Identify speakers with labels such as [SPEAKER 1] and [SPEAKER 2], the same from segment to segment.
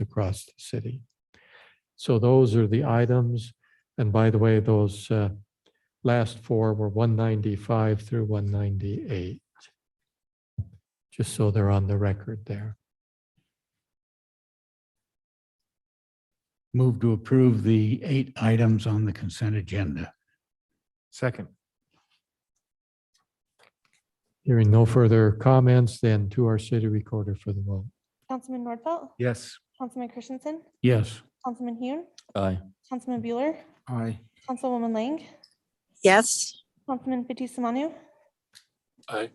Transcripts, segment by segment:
[SPEAKER 1] across the city. So those are the items. And by the way, those uh, last four were 195 through 198. Just so they're on the record there.
[SPEAKER 2] Move to approve the eight items on the consent agenda.
[SPEAKER 3] Second.
[SPEAKER 1] Hearing no further comments, then to our city recorder for the vote.
[SPEAKER 4] Councilman Nordfelt,
[SPEAKER 3] Yes.
[SPEAKER 4] Councilman Christensen,
[SPEAKER 2] Yes.
[SPEAKER 4] Councilman Hune,
[SPEAKER 3] Aye.
[SPEAKER 4] Councilman Bueller,
[SPEAKER 3] Aye.
[SPEAKER 4] Councilwoman Lang,
[SPEAKER 5] Yes,
[SPEAKER 4] Councilman Fitzie Umanu. Aye.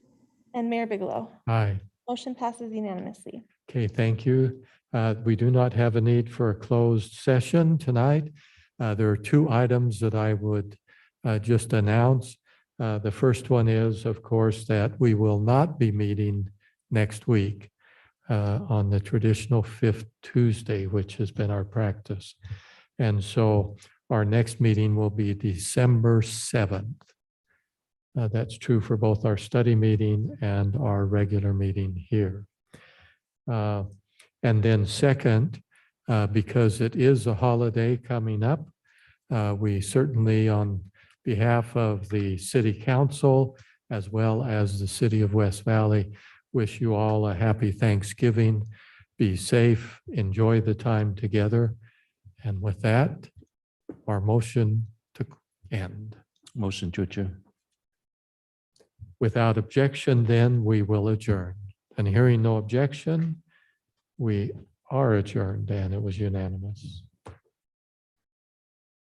[SPEAKER 4] And Mayor Bigelow.
[SPEAKER 1] Aye.
[SPEAKER 4] Motion passes unanimously.
[SPEAKER 1] Okay, thank you. Uh, We do not have a need for a closed session tonight. Uh, There are two items that I would uh, just announce. Uh, The first one is, of course, that we will not be meeting next week uh, on the traditional fifth Tuesday, which has been our practice. And so our next meeting will be December 7th. Uh, That's true for both our study meeting and our regular meeting here. Uh, And then second, uh, because it is a holiday coming up, uh, we certainly, on behalf of the city council, as well as the city of West Valley, wish you all a happy Thanksgiving. Be safe, enjoy the time together. And with that, our motion to end.
[SPEAKER 3] Motion to adjourn.
[SPEAKER 1] Without objection, then we will adjourn. And hearing no objection, we are adjourned and it was unanimous.